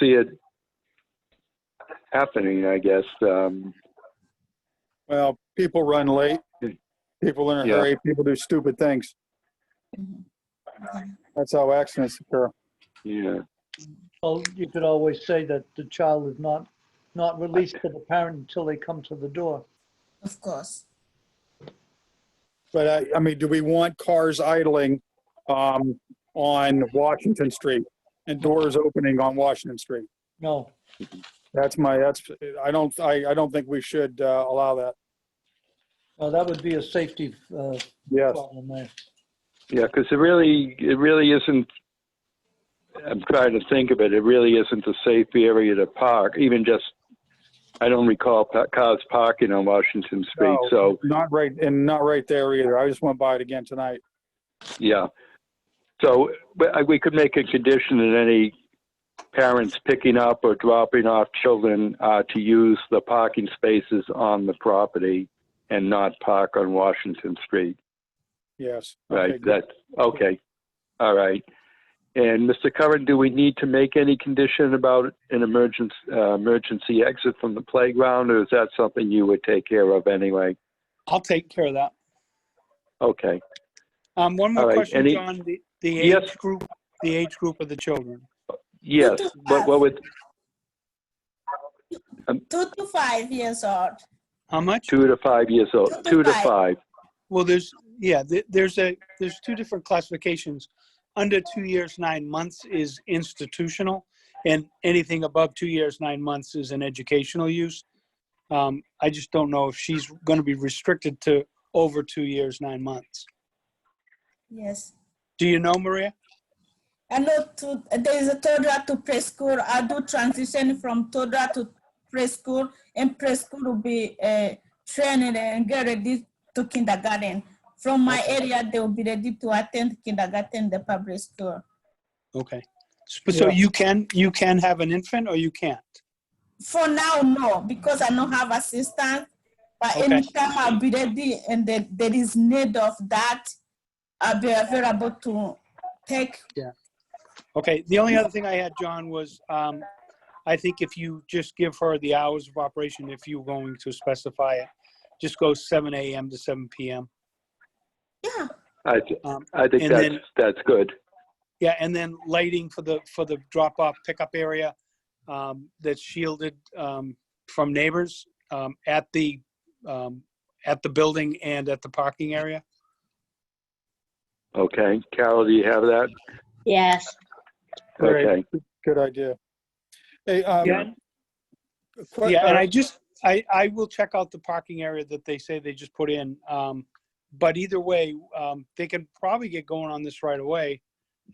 see it happening, I guess. Um, Well, people run late, people in a Yeah. hurry, people do stupid things. Mhm. That's how accidents occur. yeah, Well, you could always say that the child is not, not released to the parent until they come to the door. Of course. But I, I mean, do we want cars idling um, on Washington Street and doors opening on Washington Street? No, That's my, that's, I don't, I, I don't think we should uh, allow that. no, that would be a safety uh, Yes. problem there. yeah, because it really, it really isn't. I'm trying to think of it. It really isn't a safe area to park, even just. I don't recall pa- cars parking on Washington Street, No. so Not right, and not right there either. I just went by it again tonight. yeah. So but I- we could make a condition that any parents picking up or dropping off children uh, to use the parking spaces on the property and not park on Washington Street. Yes. Okay, Right, good. that's, okay, all right. And Mr. Curran, do we need to make any condition about an emergency, uh, emergency exit from the playground, or is that something you would take care of anyway? I'll take care of that. Okay, Um, one All more right, question, any- John, the, the Yes. age group, the age group of the children. yes, what, what would, Two to five years old. How much? two to five years old, two to five? Well, there's, yeah, th- there's a, there's two different classifications. Under two years, nine months is institutional, and anything above two years, nine months is an educational use. Um, I just don't know if she's gonna be restricted to over two years, nine months. Yes. Do you know, Maria? I know to, there is a toddler to preschool. I do transition from toddler to preschool, and preschool will be uh, training and get ready to kindergarten. From my area, they will be ready to attend kindergarten, the public school. Okay. So- So Yeah. you can, you can have an infant or you can't? For now, no, because I don't have assistance. But Okay. anytime I'll be ready and there, there is need of that, I'll be available to take. Okay, the only other thing I had, John, was um, I think if you just give her the hours of operation, if you're going to specify it, just go seven AM to seven PM. Yeah, I, th- Um, I think and that's, then- that's good, Yeah, and then lighting for the, for the drop-off pickup area um, that's shielded um, from neighbors um, at the, um, at the building and at the parking area. okay. Carol, do you have that? Yes. Great. Okay, Good idea. Hey, um, Yeah. que- Yeah, and uh, I just, I, I will check out the parking area that they say they just put in. Um, but either way, um, they can probably get going on this right away.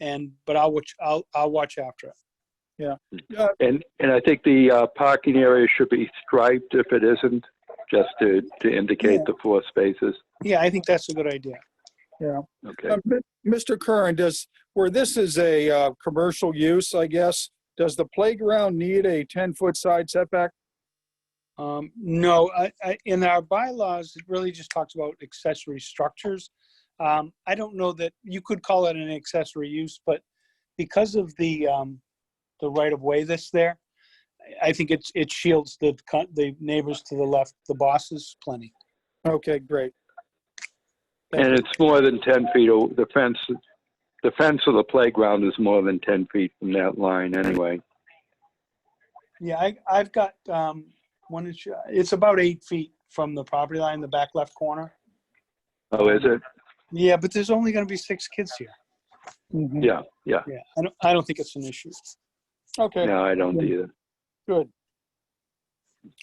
And, but I'll watch, I'll, I'll watch after it. and, and I think the uh, parking area should be striped if it isn't, just to, to indicate the four spaces, Yeah, I think that's a good idea. okay? Uh, Mi- Mr. Curran, does, where this is a uh, commercial use, I guess, does the playground need a 10-foot side setback? Um, no, I, I, in our bylaws, it really just talks about accessory structures. Um, I don't know that, you could call it an accessory use, but because of the, um, the right of way that's there, I- I think it's, it shields the, co- the neighbors to the left, the bosses plenty. Okay, great. And it's more than 10 feet, o- the fence, the fence of the playground is more than 10 feet from that line anyway. Yeah, I, I've got, um, one inch, it's about eight feet from the property line, the back left corner. Oh, is it? Yeah, but there's only gonna be six kids here. Mhm. Yeah, yeah. Yeah, I don't, I don't think it's an issue. Okay, No, I don't either. good.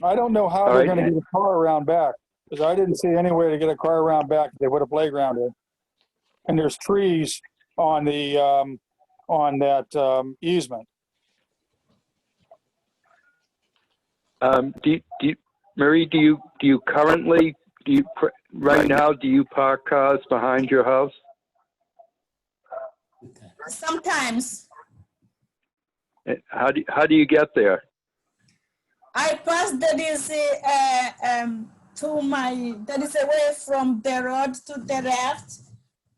I don't know how All they're right, going to and- get a car around back, because I didn't see any way to get a car around back if they put a playground in. And there's trees on the, um, on that um, easement. Um, do, you- do, you- Marie, do you, do you currently, do you, pr- right now, do you park cars behind your house? sometimes Eh, How do, how do you get there? I pass that is uh, um, to my that is away from the road to the left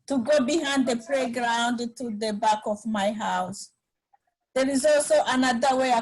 to go behind the playground to the back of my house. There is also another way I